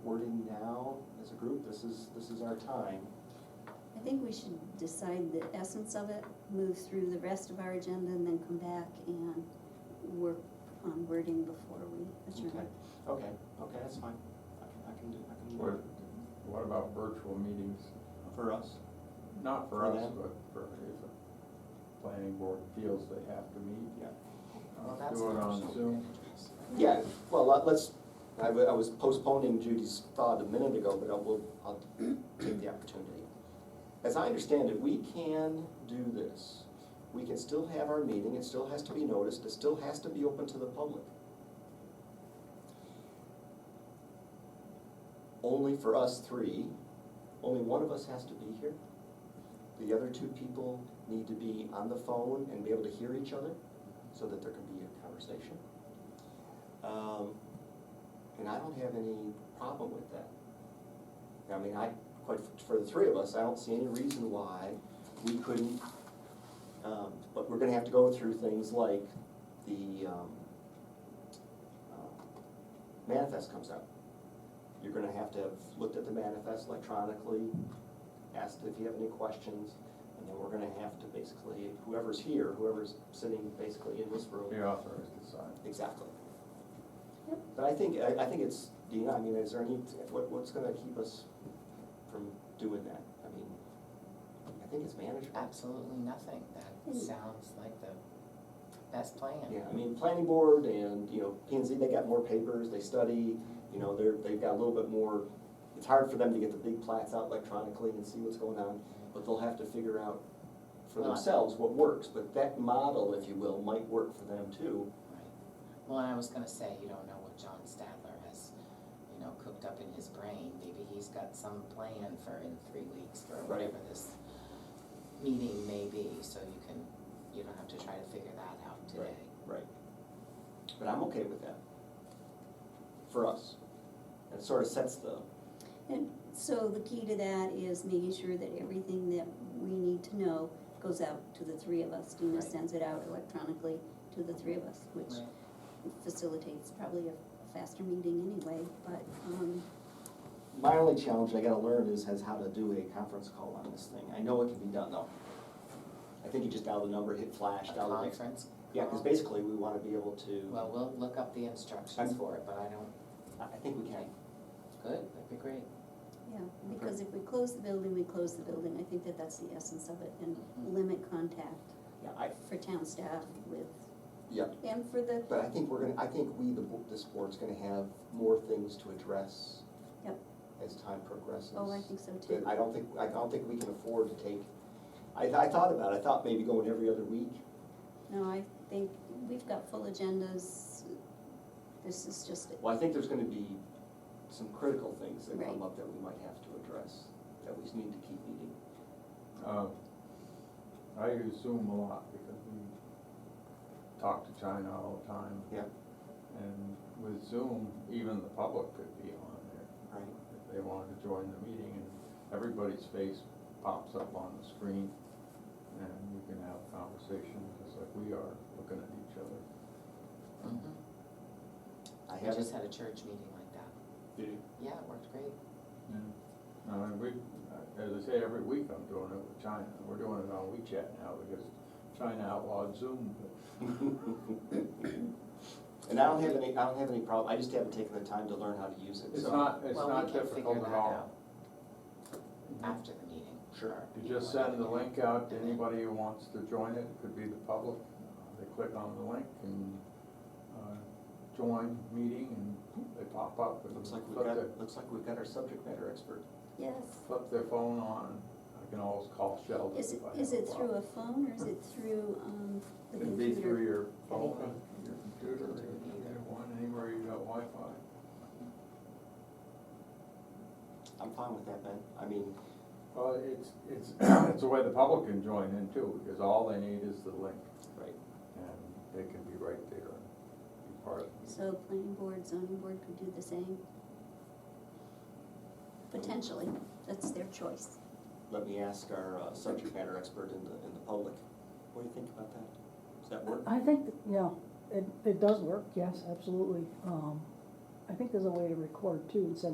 people, as a group, this is, this is our time. I think we should decide the essence of it, move through the rest of our agenda, and then come back and work on wording before we Okay, adjourn. okay, okay, that's fine. I can, I can do, I can What, work what about virtual meetings? for us. Not For for us, them? but for, if the planning board feels they have to meet. Yeah. Well, Let's that's do it an on option. Zoom. Yeah, well, let- let's, I wa- I was postponing Judy's thought a minute ago, but I will, I'll take the opportunity. As I understand it, we can do this. We can still have our meeting, it still has to be noticed, it still has to be open to the public. Only for us three, only one of us has to be here. The other two people need to be on the phone and be able to hear each other so that there can be a conversation. Um, And I don't have any problem with that. I mean, I, quite, f- for the three of us, I don't see any reason why we couldn't, um, but we're gonna have to go through things like the um, uh, manifest comes out. You're gonna have to have looked at the manifest electronically, asked if you have any questions, and then we're gonna have to basically, whoever's here, whoever's sitting basically in this room, Be authorized to sign. Exactly. But I think, I, I think it's, Dina, I mean, is there any, what, what's gonna keep us from doing that? I mean, I think it's management. Absolutely nothing, that sounds like the best plan. Yeah, I mean, planning board and, you know, P and Z, they got more papers, they study, you know, they're, they've got a little bit more, it's hard for them to get the big plats out electronically and see what's going on, but they'll have to figure out for Well, I- themselves what works, but that model, if you will, might work for them too. Right. Well, and I was gonna say, you don't know what John Stadler has, you know, cooked up in his brain, maybe he's got some plan for in three weeks for Right. whatever this meeting may be, so you can, you don't have to try to figure that out today. Right. But I'm okay with that. For us. And it sort of sets the, And so the key to that is making sure that everything that we need to know goes out to the three of us. Dina Right. sends it out electronically to the three of us, which Right. facilitates probably a faster meeting anyway, but, um, my only challenge I gotta learn is, has how to do a conference call on this thing. I know it can be done though. I think you just dial the number, hit flash, A dial the next. conference. Yeah, cause call. basically we wanna be able to, Well, we'll look up the instructions I'm- for it, but I don't, I, I think we can. good, that'd be great. yeah, because if we close the building, we close the building. I think that that's the essence of it, and Mm-hmm. limit contact Yeah, I, for town staff with, yeah, and for the but I think we're gonna, I think we, the, bo- this board's gonna have more things to address. Yep. As time progresses. Oh, I think so too. But I don't think, I don't think we can afford to take, I, I thought about it, I thought maybe going every other week. No, I think we've got full agendas. This is just, Well, I think there's gonna be some critical things that come Right. up that we might have to address, that we just need to keep meeting. Um, I use Zoom a lot because we talk to China all the time. Yeah. And with Zoom, even the public could be on there. Right. if they wanted to join the meeting, and everybody's face pops up on the screen, and you can have a conversation, just like we are, looking at each other. Mhm. I We just haven't, had a church meeting like that, Did you? yeah, it worked great. Yeah. I mean, Uh, we, as I say, every week I'm doing it with China, we're doing it on WeChat now, because China outlawed Zoom, and I don't have any, I don't have any problem, I just haven't taken the time to learn how to use it, so. it's not, it's Well, we not can figure difficult at that all. out After the meeting. Sure. You just send the link out to anybody who wants to join it, could be the public, Uh, they click on the link and, uh, join meeting, and poof, they pop up. and Looks like we've flip got, their- looks like we've got our subject matter expert. yes. flip their phone on, I can always call Sheldon Is it, if I have a is it through problem. a phone or is it through, um, the It'd be through computer? your phone, Anything. your computer, or either one, anywhere you got Wi-Fi. I'm fine with that, Ben, I mean, Well, it's, it's, it's a way the public can join in too, because all they need is the link, right, and they can be right there and be part of it. So planning board, zoning board could do the same. Potentially, that's their choice. let me ask our uh, subject matter expert in the, in the public, what do you think about that? Does that work? I think, that- yeah, it, it does work, yes, absolutely. Um, I think there's a way to record too and send